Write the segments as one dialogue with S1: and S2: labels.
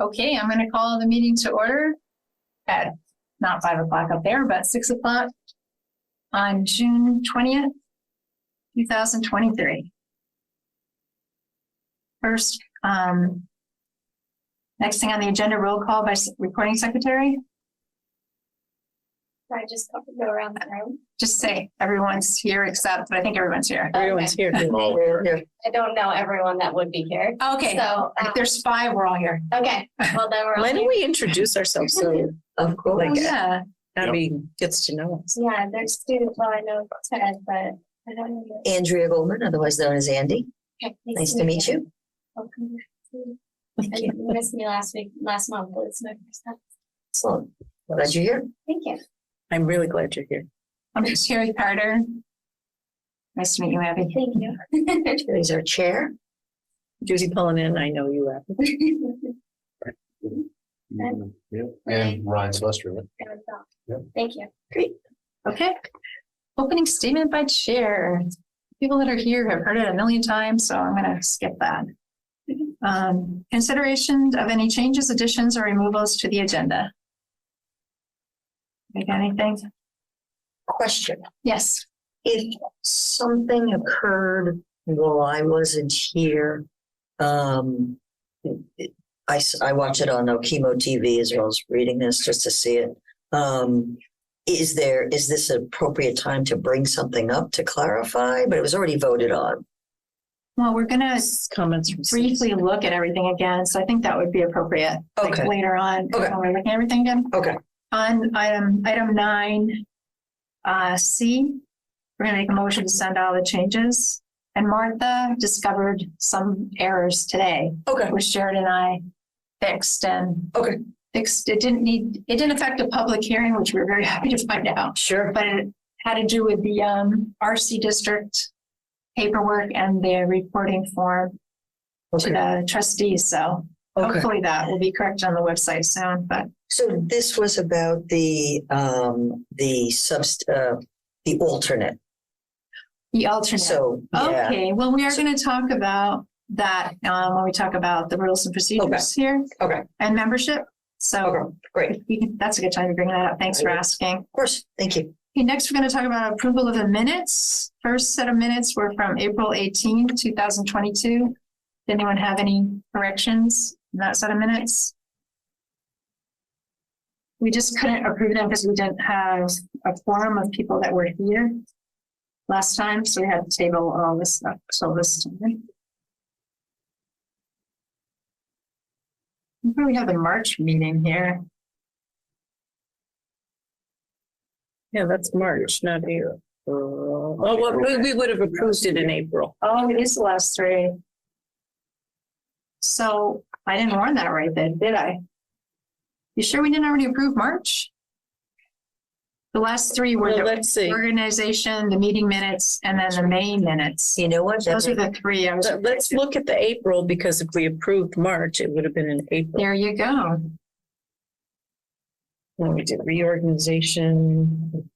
S1: Okay, I'm gonna call the meeting to order at not five o'clock up there, but six o'clock on June twentieth, two thousand twenty-three. First, um, next thing on the agenda, roll call by s- recording secretary.
S2: I just go around the room.
S1: Just say everyone's here except, but I think everyone's here.
S3: Everyone's here.
S4: All
S3: Here.
S2: I don't know everyone that would be here.
S1: Okay,
S2: So, um,
S1: if there's five, we're all here.
S2: okay, well then we're. all
S3: Why don't
S2: here.
S3: we introduce ourselves so
S5: Of course.
S1: Oh, yeah.
S3: Abby gets to know us?
S2: Yeah, there's students, well, I know Ted, but I don't know.
S5: Andrea Goldman, otherwise known as Andy.
S2: Okay,
S5: Nice to meet you.
S2: Welcome. And you missed me last week, last month, but it's my first time.
S5: Excellent. Glad you're here.
S2: Thank you.
S3: I'm really glad you're here.
S1: I'm Sherry Carter. Nice to meet you, Abby.
S2: Thank you.
S5: Here's our chair.
S3: Judy Pullinan, I know you. Abby.
S4: Yeah, and Ryan Sylvester, right? Yep.
S2: Thank you.
S1: Okay. Opening statement by chair. People that are here have heard it a million times, so I'm gonna skip that. Um, consideration of any changes, additions, or removals to the agenda. Make anything?
S5: Question.
S1: Yes.
S5: If something occurred while I wasn't here, um, it- I, s- I watch it on Okemo TV as well as reading this just to see it. Um, is there, is this an appropriate time to bring something up to clarify? But it was already voted on.
S1: Well, we're gonna
S3: Comments from.
S1: briefly look at everything again, so I think that would be appropriate. like,
S5: Okay.
S1: Later on,
S5: Okay.
S1: when we're looking at everything again.
S5: Okay.
S1: On item, item nine, uh, C, we're gonna make a motion to send all the changes. And Martha discovered some errors today,
S5: Okay.
S1: which Jared and I fixed and.
S5: Okay.
S1: Fixed, it didn't need, it didn't affect a public hearing, which we were very happy to find out,
S5: Sure.
S1: but it had to do with the, um, RC district paperwork and the reporting form to
S5: Okay.
S1: the trustees, so
S5: Okay.
S1: hopefully that will be correct on the website soon, but
S5: So this was about the, um, the subst, uh, the alternate.
S1: the alternate.
S5: So, yeah,
S1: Okay, well, we are gonna talk about that, um, when we talk about the rules and procedures here.
S5: Okay.
S1: And membership, so
S5: okay, great. Of
S1: we can- that's a good time to bring that up. Thanks for
S5: Right.
S1: asking.
S5: course, thank you.
S1: Okay, next, we're gonna talk about approval of the minutes. First set of minutes were from April 18, thousand twenty-two. Did anyone have any corrections in that set of minutes? We just couldn't approve them because we didn't have a forum of people that were here last time, so we had to table all this stuff, so this time. We probably have the March meeting here.
S3: Yeah, that's March, not April. Oh, well, we, we would have approved it in April.
S1: Oh, it is the last three. So I didn't warn that right then, did I? You sure we didn't already approve March? The last three were
S3: Well,
S1: the
S3: let's see.
S1: organization, the meeting minutes, and then the main minutes.
S5: You know what?
S1: Those are
S5: That-
S1: the three. I was,
S3: Let- Let's look at the April because if we approved March, it would have been in April.
S1: there you go.
S3: When we did reorganization.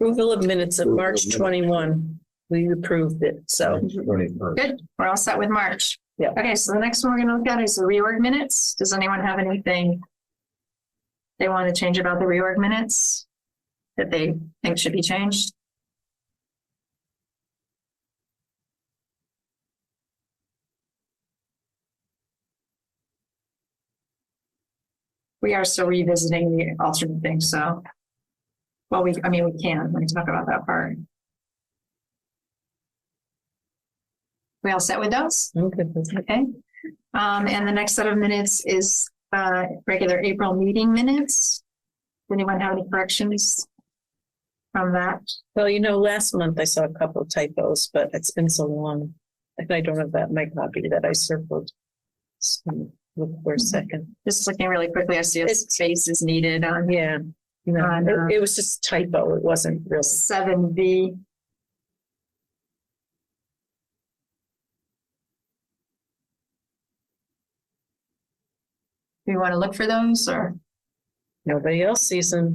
S3: Approval of minutes of March twenty-one. We approved it, so
S4: Twenty-first.
S1: Good. We're all set with March.
S3: Yeah.
S1: Okay, so the next one we're gonna look at is the reorg minutes. Does anyone have anything they want to change about the reorg minutes that they think should be changed? We are still revisiting the alternate thing, so. Well, we, I mean, we can, we can talk about that part. We all set with those?
S3: I'm good with it.
S1: Okay. Um, and the next set of minutes is, uh, regular April meeting minutes. Anyone have any corrections from that?
S3: Well, you know, last month I saw a couple typos, but it's been so long. And I don't have that in my copy that I circled. So, Look for a second.
S1: Just looking really quickly, I see a
S3: It's-
S1: space is needed on
S3: Yeah. You
S1: I know.
S3: know, it, it was just typo. It wasn't real.
S1: seven B. Do you want to look for those or?
S3: Nobody else sees them.